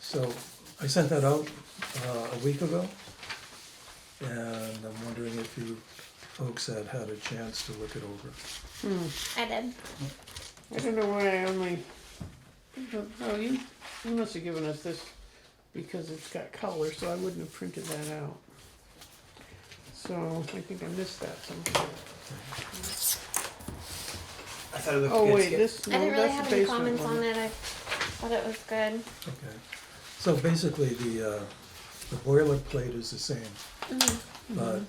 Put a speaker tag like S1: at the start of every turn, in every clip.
S1: So I sent that out uh, a week ago. And I'm wondering if you folks had had a chance to look it over.
S2: I did.
S3: I don't know why I only. Oh, you, you must have given us this because it's got color, so I wouldn't have printed that out. So I think I missed that somewhere.
S4: I thought it looked
S3: Oh
S4: good.
S3: wait,
S4: Skip.
S3: this
S2: I
S3: no,
S2: didn't really
S3: that's
S2: have
S3: the
S2: any
S3: basement
S2: comments
S3: one.
S2: on it. I thought it was good.
S1: Okay. So basically, the, uh, the boilerplate is the same.
S3: Mm-hmm.
S1: But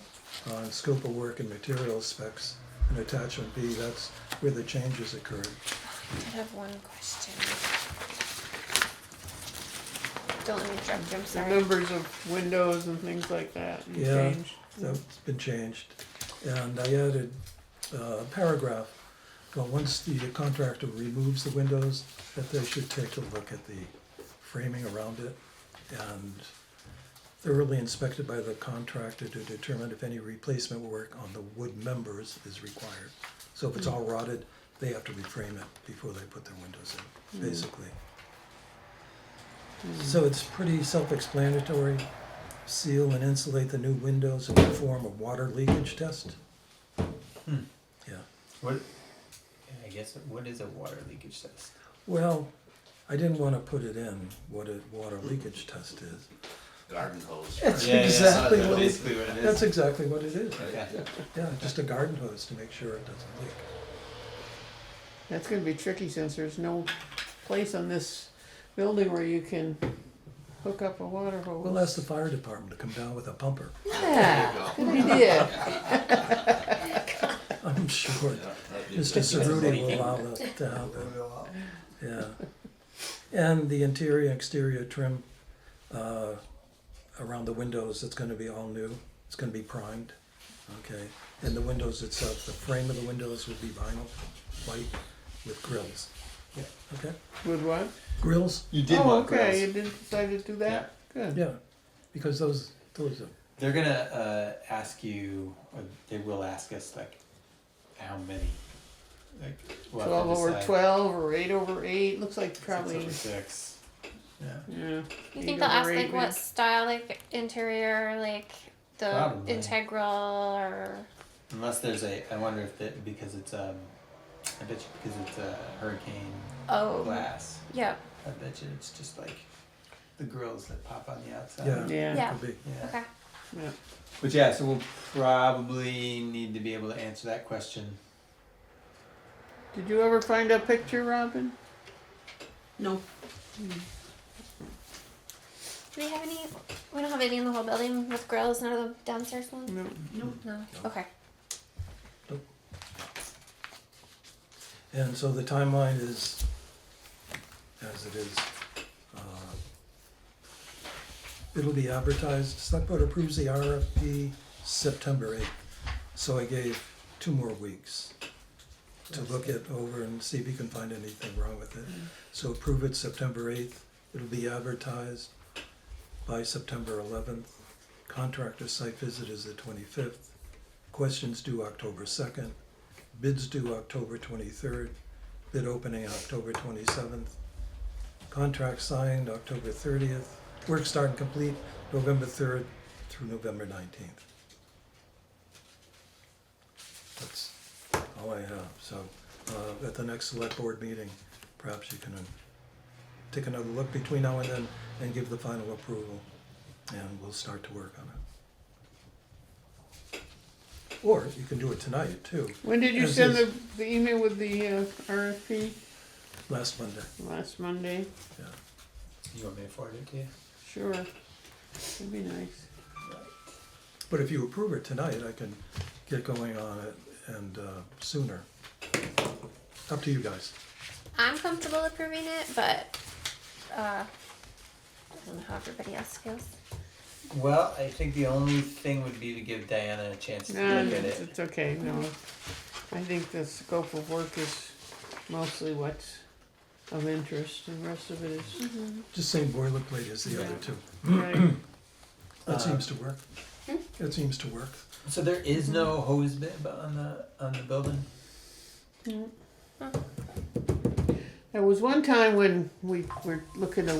S1: on scope of work and material specs and attachment B, that's where the changes occurred.
S2: I did have one question. Don't let me interrupt you. I'm
S3: The
S2: sorry.
S3: numbers of windows and things like that and
S1: Yeah,
S3: changed.
S1: that's been changed. And I added uh, a paragraph, well, once the contractor removes the windows, that they should take a look at the framing around it and thoroughly inspected by the contractor to determine if any replacement work on the wood members is required. So if it's all rotted, they have to reframe it before they put their windows in, basically. So it's pretty self-explanatory. Seal and insulate the new windows and perform a water leakage test.
S4: Hmm.
S1: Yeah.
S4: What? yeah, I guess what is a water leakage test?
S1: Well, I didn't want to put it in what a water leakage test is.
S5: garden hose.
S1: That's
S4: Yeah, yeah,
S1: exactly
S5: that's
S1: what it-
S5: basically what it is.
S1: That's exactly what it is.
S5: Yeah.
S1: Yeah, just a garden hose to make sure it doesn't leak.
S3: That's gonna be tricky since there's no place on this building where you can hook up a water hose.
S1: We'll ask the fire department to come down with a pumper.
S3: Yeah,
S5: There
S3: good idea.
S1: I'm sure
S5: Yeah, that'd be
S1: Mr.
S5: good.
S1: Cerruti will allow that to happen. Yeah. And the interior, exterior trim uh, around the windows, it's gonna be all new. It's gonna be primed, okay? And the windows itself, the frame of the windows will be vinyl, white, with grills.
S4: Yeah.
S1: Okay?
S3: With what?
S1: Grills,
S4: You did
S3: oh,
S4: want
S3: okay.
S4: grills.
S3: You did decide to do that. Good.
S1: yeah, because those, those are,
S4: They're gonna uh, ask you, or they will ask us like, how many? Like we'll have to
S3: 12 over
S4: decide.
S3: 12 or 8 over 8 looks like
S4: Six
S3: probably
S4: over six. Yeah.
S3: yeah
S2: You
S3: Eight
S2: think they'll ask
S3: over
S2: like
S3: eight,
S2: what
S3: maybe.
S2: style, like interior, like the
S4: Probably.
S2: integral or
S4: Unless there's a, I wonder if that because it's um, I bet you because it's a hurricane
S2: oh
S4: glass.
S2: yeah
S4: I bet you it's just like the grills that pop on the outside.
S1: yeah.
S3: Yeah.
S2: Yeah.
S1: could be.
S4: Yeah.
S2: okay
S3: yeah
S4: But yeah, so we'll probably need to be able to answer that question.
S3: did you ever find a picture robin
S6: No,
S2: do we have any we don't have any in the whole building with grills none of the downstairs ones
S3: no
S6: no.
S2: no okay
S1: And so the timeline is as it is. Uh, It'll be advertised, select board approves the RFP September eighth. So I gave two more weeks to look it over and see if you can find anything wrong with it. So approve it September eighth, it'll be advertised by September eleventh. Contractor site visit is the twenty-fifth. Questions due October second. Bids due October twenty-third, bid opening October twenty-seventh, contract signed October thirtieth, work start and complete November third through November nineteenth. That's all I have, so, uh, at the next select board meeting, perhaps you can uh, take another look between now and then and give the final approval, and we'll start to work on it. Or you can do it tonight too,
S3: when did you
S1: This
S3: send the,
S1: is-
S3: the email with the uh, rfp
S1: last Monday,
S3: last monday
S1: yeah.
S4: You want me to forward it to you?
S3: sure that'd be nice
S1: But if you approve it tonight, I can get going on it and uh, sooner. Up to you guys.
S2: I'm comfortable approving it but uh I don't know how everybody else feels
S4: Well, I think the only thing would be to give Diana a chance to
S3: no,
S4: look at
S3: it's,
S4: it.
S3: it's okay no i think the scope of work is mostly what's of interest and the rest of it is
S1: Just same boilerplate as the other
S3: Yeah.
S1: two.
S3: right
S1: That
S4: Uh,
S1: seems to work. That seems to work.
S4: So there is no hose bib on the on the building.
S3: there was one time when we were looking to